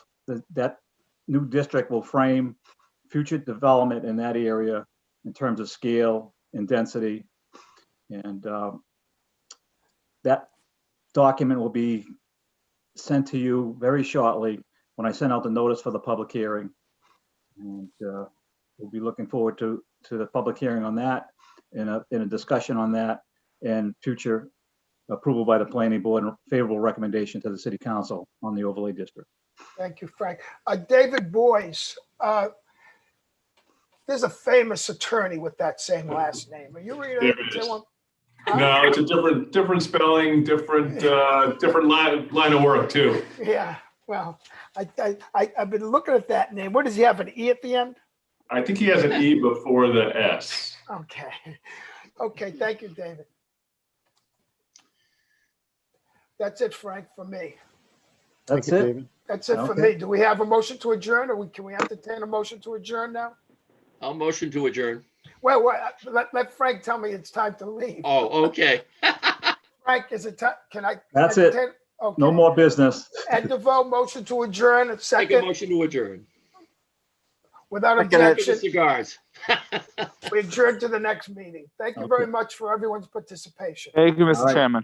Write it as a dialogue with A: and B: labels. A: the- that new district will frame future development in that area in terms of scale and density. And um, that document will be sent to you very shortly when I send out the notice for the public hearing. And uh, we'll be looking forward to, to the public hearing on that and a, and a discussion on that and future approval by the planning board and favorable recommendation to the city council on the overlay district.
B: Thank you, Frank. Uh, David Boyce, uh, there's a famous attorney with that same last name. Are you related
C: There
B: to
C: is.
B: him?
C: No, it's a different, different spelling, different, uh, different line, line of work too.
B: Yeah, well, I, I, I, I've been looking at that name. What does he have, an E at the end?
C: I think he has an E before the S.
B: Okay, okay, thank you, David. That's it, Frank, for me.
D: Thank
A: That's
D: you,
A: it.
D: David.
B: That's it for me. Do we have a motion to adjourn or we, can we entertain a motion to adjourn now?
E: I'll motion to adjourn.
B: Well, well, uh, let, let Frank tell me it's time to leave.
E: Oh, okay.
B: Frank, is it time, can I?
A: That's it.
B: entertain- Okay.
A: No more business.
B: Ed DeVoe, motion to adjourn, a
E: Take a
B: second,
E: motion to adjourn.
B: without
D: Second.
E: Give
B: objection,
E: us Cigars.
B: we adjourn to the next meeting. Thank you very much for everyone's participation.
F: Thank you,
A: All right.
F: Mr. Chairman.